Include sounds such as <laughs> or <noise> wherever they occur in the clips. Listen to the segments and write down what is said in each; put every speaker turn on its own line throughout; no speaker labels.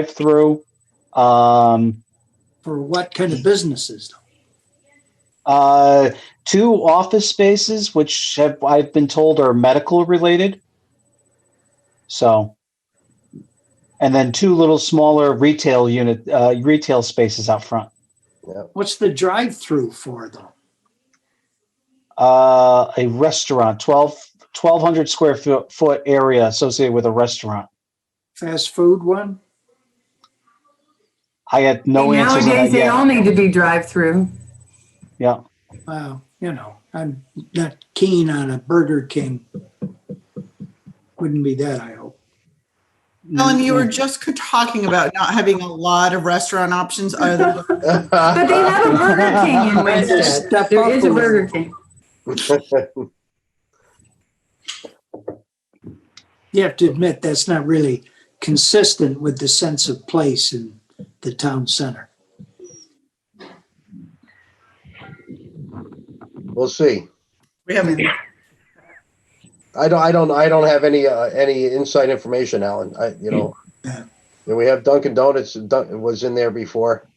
drive-through. Um,
For what kind of businesses?
uh, two office spaces, which have I've been told are medical related. So, and then two little smaller retail unit uh, retail spaces out front.
What's the drive-through for though?
Uh, a restaurant, 12, 1,200 square foot, foot area associated with a restaurant.
Fast food one?
I had no
And
answer to that
Nowadays, they
yet.
all need to be drive-through.
yeah.
Wow, you know, I'm not keen on a Burger King. Wouldn't be that, I hope.
Ellen, you were
Mm-hmm.
just talking about not having a lot of restaurant options other than <laughs>
But <laughs> they have a Burger King in Winston.
Step
There
up
is a
little.
Burger King.
You have to admit, that's not really consistent with the sense of place in the town center.
We'll see.
we haven't.
I don't, I don't, I don't have any, uh, any inside information, Alan. I, you know.
Yeah.
And we have Dunkin' Donuts, uh, Dun- was in there before. <laughs>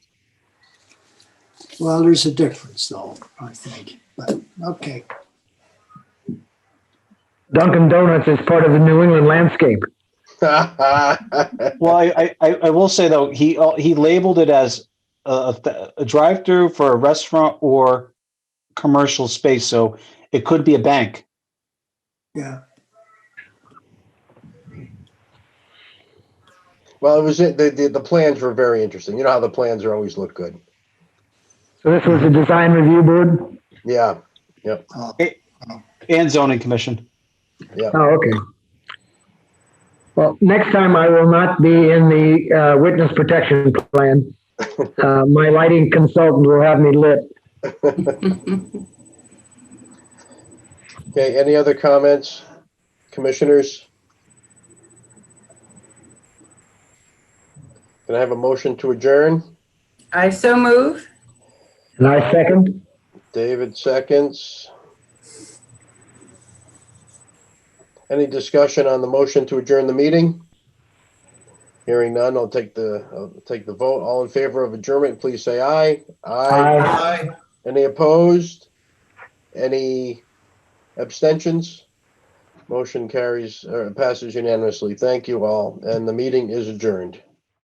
Well, there's a difference though, I think, but, okay.
Dunkin' Donuts is part of the New England landscape.
Well,
Well, I, I- I, I will say though, he, uh, he labeled it as a, a- a drive-through for a restaurant or commercial space. So it could be a bank.
Yeah,
it was, uh, the, the, the plans were very interesting. You know how the plans are always look good.
So this was a design review board?
Yeah,
uh,
and zoning commission.
Oh, okay. Well, next time I will not be in the uh, witness protection plan. Uh, My lighting consultant will have me lit.
okay, any other comments? Commissioners? Can I have a motion to adjourn?
I so move.
And I second.
David seconds. Any discussion on the motion to adjourn the meeting? Hearing none, I'll take the, I'll take the vote. All in favor of adjournment, please say aye.
Aye.
Any opposed? Any abstentions? uh, Motion carries, or passes unanimously. Thank you all, and the meeting is adjourned.